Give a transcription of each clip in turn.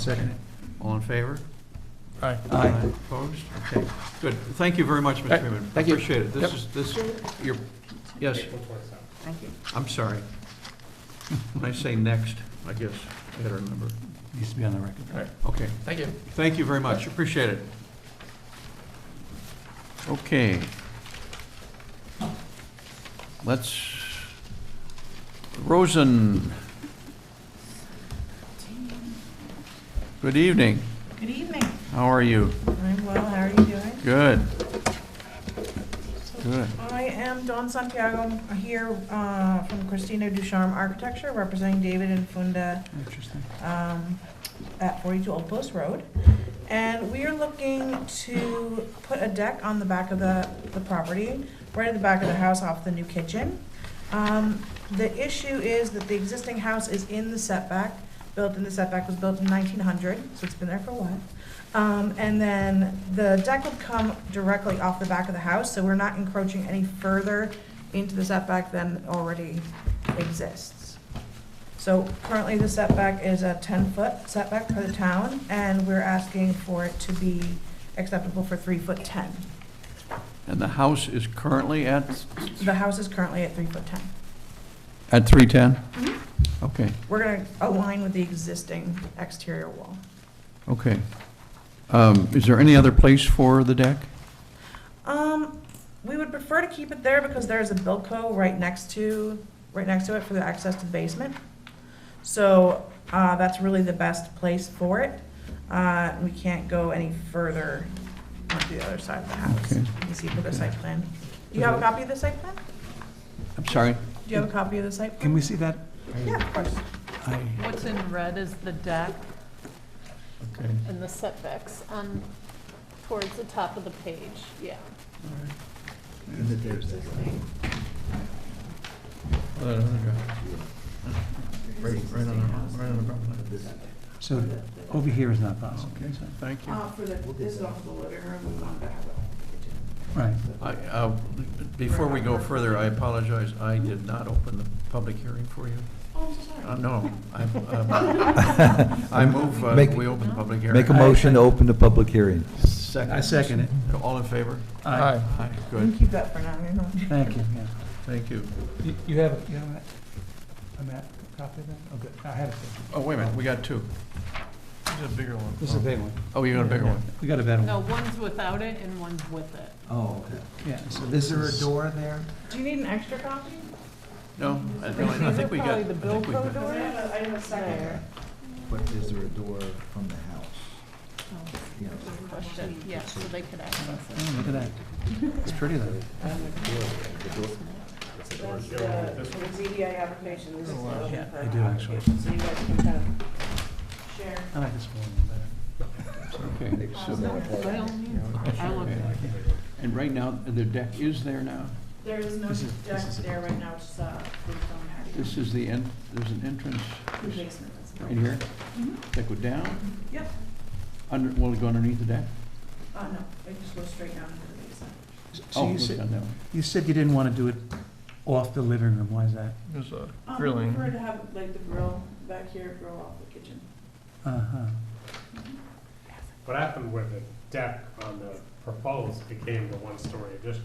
Second. All in favor? Aye. Aye. Opposed? Okay, good. Thank you very much, Mr. Right, Freeman. thank you. Appreciate it. This Yep. is, this, you're, yes, Thank you. I'm sorry. When I say next, I guess I gotta remember. Needs to be on the record. All right. Okay, Thank you. thank you very much. Appreciate it. Okay. Let's, Rosen. Good evening. Good evening. How are you? I'm well, how are you doing? Good. Good. I am Dawn Santiago, I'm here uh, from Christina Ducharme Architecture, representing David and Funda Interesting. um, at 42 Old Post Road. And we are looking to put a deck on the back of the, the property, right at the back of the house off the new kitchen. Um, The issue is that the existing house is in the setback, built in the setback, was built in 1900, so it's been there for a while. Um, And then the deck would come directly off the back of the house, so we're not encroaching any further into the setback than already exists. So currently, the setback is a 10-foot setback for the town, and we're asking for it to be acceptable for 3 foot 10. And the house is currently at? The house is currently at 3 foot 10. At 310? Mm-hmm. Okay, We're going to align with the existing exterior wall. okay. Um, Is there any other place for the deck? Um, we would prefer to keep it there because there is a Bilco right next to, right next to it for the access to the basement. So, uh, that's really the best place for it. Uh, we can't go any further onto the other side of the house. Okay. You can see for the site plan. Do you have a copy of the site plan? I'm sorry? Do you have a copy of the site Can plan? we see that? Yeah, of course. I, What's in red is the deck Okay. and the setbacks on, towards the top of the page, yeah. so over here is not possible. Okay, so- thank you. Uh, for the, this is off the living room, we want to have Right. I- uh, Before we go further, I apologize, I did not open the public hearing for you. Oh, I'm so Uh, sorry. No, I um, I move, uh, Make- we open the public hearing. Make a motion to open the public hearing. Second. I second it. All in favor? Aye. Aye, You can good, keep that for now, you know. Thank you, yeah. thank you. You- You have, a- you have a, a map, copy of that? Oh, good, I have it. Oh, wait a minute, we got two. This is a bigger one. This is a big one. Oh, you got a bigger one. We got a better No, one. one's without it and one's with it. Oh, okay. Yeah, so this is. door there? Do you need an extra copy? No, I don't- I think we got, I Probably the think we Bilko got. Because I have a, I have a second. But is there a door from the house? You know, Oh, Good Question, yeah, so they could access it. Oh, look at that. It's pretty though. That's the, uh, the ZBA application, this is the Yeah, open I do, for actually. application, so you guys can kind of share. I like this one better. Okay, so, By all means, I look at it. and right now, the deck is there now? There is no This is- this deck is it. there right now, it's, uh, we don't This is the end, there's an entrance have the basement. that's not- in here? Mhm. Deck go down, Yep, under, will it go underneath the deck? uh, no, it just goes straight down into the basement. So Oh, you it's said, down that way. you said you didn't want to do it off the living room, why is that? There's a Um, grilling. I prefer to have like the grill back here, grill off the kitchen. Uh-huh. What happened with the deck on the proposed became the one-story addition?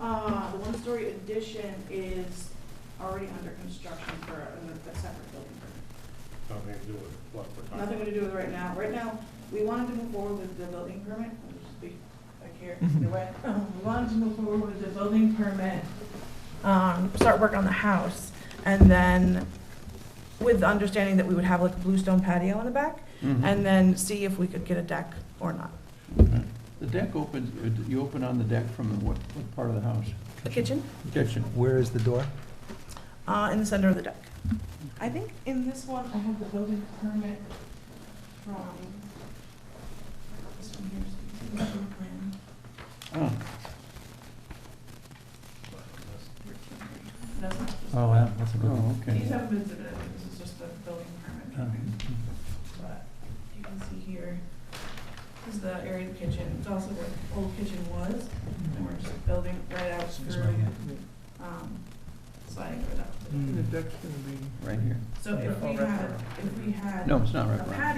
Uh, the one-story addition is already under construction for a a separate building permit. Nothing to do with what we're talking about. Nothing to do with right now. Right now, we wanted to move forward with the building permit, I'll just be back here, either way. Um, We wanted to move forward with the building permit, um, start work on the house, and then with the understanding that we would have like a bluestone patio in the back, Mm-hmm. and then see if we could get a deck or not. Okay. Mm-hmm. The deck opens, you open on the deck from the what, what part of the house? The kitchen, Kitchen. Where is the door? uh, in the center of the deck. I think in this one, I have the building permit from, this one here, so you can see the plan. Oh, That's not just- Oh, wow, that's a good one. oh, These okay. haven't been submitted, this is just the building permit, but you can see here, this is the area of the kitchen, it's also where the old kitchen was, and we're Mm-hmm. just building right out Excuse through, my hand. um, sliding it out. The deck's gonna be. right here. So if we Yeah. Hmm. had, if we had No, it's not a wraparound. patio